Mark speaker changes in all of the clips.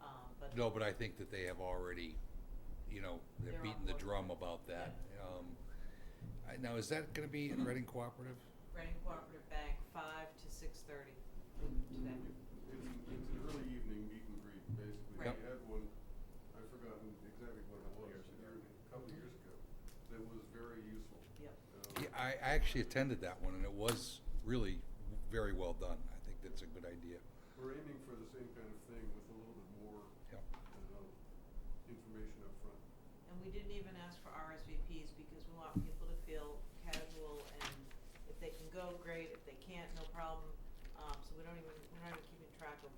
Speaker 1: um, but.
Speaker 2: No, but I think that they have already, you know, they're
Speaker 1: They're on
Speaker 2: beating the
Speaker 1: board.
Speaker 2: drum about that. Um, I- Now, is that gonna be in Reading Cooperative?
Speaker 1: Reading Cooperative Bank, five to six thirty today.
Speaker 3: It's, it's an early evening meet and greet, basically.
Speaker 1: Right.
Speaker 3: We had one, I've forgotten exactly what it was, a year- a couple of years ago, that was very useful.
Speaker 1: Yep.
Speaker 3: Um,
Speaker 2: Yeah, I, I actually attended that one and it was really very well done. I think that's a good idea.
Speaker 3: We're aiming for the same kind of thing with a little bit more,
Speaker 2: Yep.
Speaker 3: uh, information up front.
Speaker 1: And we didn't even ask for RSVPs because we want people to feel casual and if they can go, great, if they can't, no problem. Um, so we don't even, we're not even keeping track of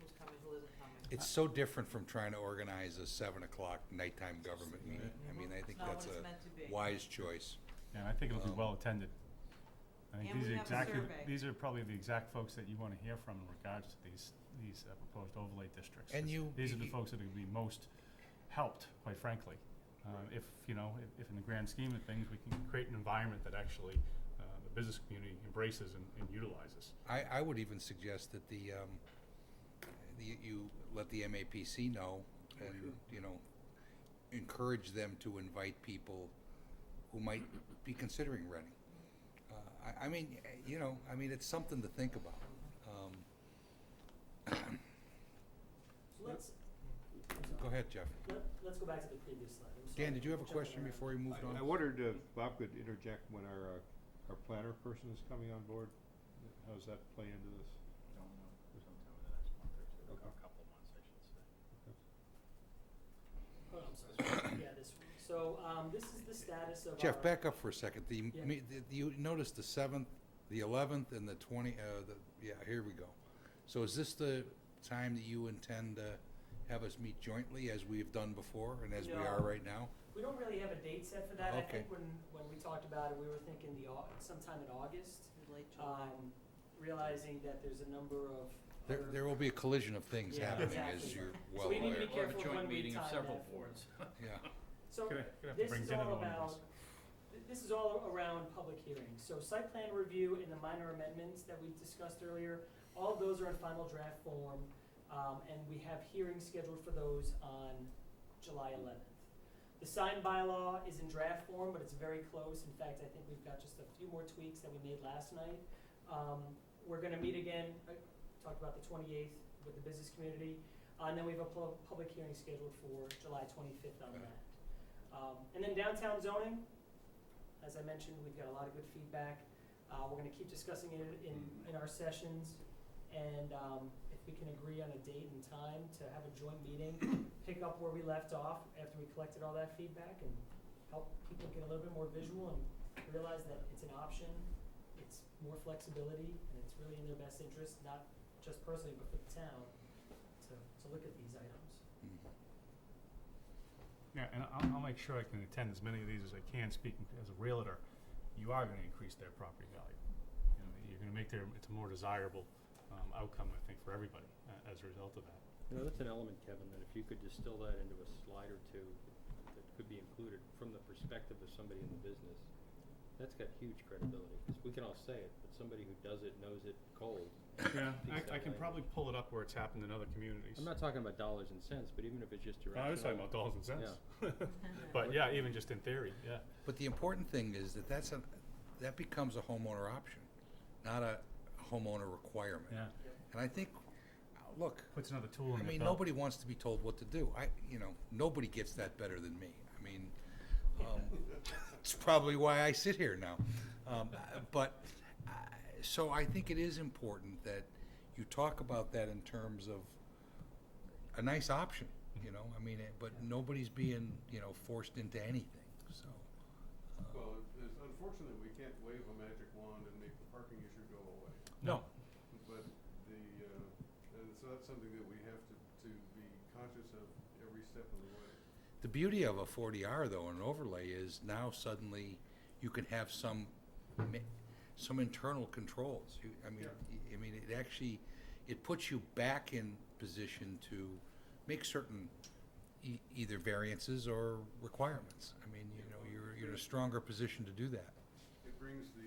Speaker 1: who's coming, who isn't coming.
Speaker 2: It's so different from trying to organize a seven o'clock nighttime government meeting. I mean, I
Speaker 1: It's
Speaker 2: think
Speaker 1: not
Speaker 2: that's
Speaker 1: what it's meant to be.
Speaker 2: a wise choice.
Speaker 4: Yeah, and I think it'll be
Speaker 2: Um,
Speaker 4: well attended. I think
Speaker 1: And
Speaker 4: these
Speaker 1: we
Speaker 4: are
Speaker 1: have a
Speaker 4: exactly,
Speaker 1: survey.
Speaker 4: these are probably the exact folks that you wanna hear from in regards to these, these uh, proposed overlay districts.
Speaker 2: And
Speaker 4: It's-
Speaker 2: you-
Speaker 4: These are the
Speaker 2: you-
Speaker 4: folks that are gonna be most helped, quite frankly. Um,
Speaker 3: Right.
Speaker 4: if, you know, if, if in the grand scheme of things, we can create an environment that actually, uh, the business community embraces and, and utilizes.
Speaker 2: I, I would even suggest that the, um, the, you let the MAPC know
Speaker 5: Oh,
Speaker 2: and, you know, encourage them to invite people who might be considering Reading. Uh, I, I mean, eh, you know, I mean, it's something to think about. Um,
Speaker 6: Let's,
Speaker 2: go ahead, Jeff.
Speaker 6: let, let's go back to the previous slide. I'm
Speaker 2: Dan,
Speaker 6: sorry,
Speaker 2: did you have a
Speaker 6: jumping
Speaker 2: question
Speaker 6: around.
Speaker 2: before you moved
Speaker 5: I- I
Speaker 2: on?
Speaker 5: wondered if Bob could interject when our, uh, our planner person is coming on board. How does that play into this?
Speaker 7: Don't know, sometime in the next month or two,
Speaker 5: Okay.
Speaker 7: a couple of months, I should say.
Speaker 6: Oh, I'm sorry. Yeah, this one. So, um, this is the status of uh,
Speaker 2: Jeff,
Speaker 6: our-
Speaker 2: back up for a second. The, me-
Speaker 6: Yeah.
Speaker 2: the- you noticed the seventh, the eleventh, and the twenty, uh, the, yeah, here we go. So is this the time that you intend to have us meet jointly as we've done before and as we are
Speaker 6: No.
Speaker 2: right now?
Speaker 6: We don't really have a date set for that. I
Speaker 2: Okay.
Speaker 6: think when, when we talked about it, we were thinking the, au- sometime in August.
Speaker 1: Late July.
Speaker 6: Um, realizing that there's a number of
Speaker 2: There,
Speaker 6: other-
Speaker 2: there will be a collision of things
Speaker 6: Yeah,
Speaker 2: happening
Speaker 6: exactly.
Speaker 2: as you're well
Speaker 6: So we need to
Speaker 2: aware.
Speaker 6: be careful when we time that. for-
Speaker 2: Yeah,
Speaker 6: So,
Speaker 4: Gonna- gonna have to
Speaker 6: this
Speaker 4: bring
Speaker 6: is
Speaker 4: dinner
Speaker 6: all
Speaker 4: along with us.
Speaker 6: about, th- this is all around public hearings. So site plan review and the minor amendments that we discussed earlier, all of those are in final draft form. Um, and we have hearings scheduled for those on July eleventh. The sign bylaw is in draft form, but it's very close. In fact, I think we've got just a few more tweaks that we made last night. Um, we're gonna meet again, I talked about the twenty-eighth with the business community. uh, And then we have a pub- public hearing scheduled for July twenty-fifth on
Speaker 2: Okay.
Speaker 6: that. Um, and then downtown zoning, as I mentioned, we've got a lot of good feedback. Uh, we're gonna keep discussing it in, in our sessions. And, um, if we can agree on a date and time to have a joint meeting, pick up where we left off after we collected all that feedback and help people get a little bit more visual and realize that it's an option, it's more flexibility, and it's really in their best interest, not just personally, but for the town, to, to look at these items.
Speaker 2: Mm-hmm.
Speaker 4: Yeah, and I'll, I'll make sure I can attend as many of these as I can, speaking as a realtor, you are gonna increase their property value. You know, you're gonna make their, it's a more desirable, um, outcome, I think, for everybody, uh, as a result of that.
Speaker 8: You know, that's an element, Kevin, that if you could distill that into a slide or two that could be included from the perspective of somebody in the business, that's got huge credibility, 'cause we can all say it, but somebody who does it, knows it cold.
Speaker 4: Yeah,
Speaker 8: speaks
Speaker 4: I, I
Speaker 8: that
Speaker 4: can
Speaker 8: language.
Speaker 4: probably pull it up where it's happened in other communities.
Speaker 8: I'm not talking about dollars and cents, but even if it's just directional.
Speaker 4: I was talking about dollars and cents. But yeah, even just in theory, yeah.
Speaker 2: but the important thing is that that's a, that becomes a homeowner option, not a homeowner requirement. And I think, uh, look,
Speaker 4: Puts another tool in
Speaker 2: I
Speaker 4: their
Speaker 2: mean,
Speaker 4: belt.
Speaker 2: nobody wants to be told what to do. I, you know, nobody gets that better than me. I mean, um, it's probably why I sit here now. Um, uh, but uh, so I think it is important that you talk about that in terms of a nice option. You know, I mean, it, but nobody's being you know forced into anything. So uh,
Speaker 3: Well, it- it's unfortunate we can't wave a magic wand and make the parking issue go away.
Speaker 2: no,
Speaker 3: But the, uh, and so that's something that we have to, to be conscious of every step of the way.
Speaker 2: The beauty of a 40R though, an overlay is now suddenly you can have some, ma- some internal controls. You- I mean,
Speaker 3: Yeah.
Speaker 2: y- I mean, it actually, it puts you back in position to make certain e- either variances or requirements. I mean, you know, you're, you're in a stronger position to do that.
Speaker 3: It brings the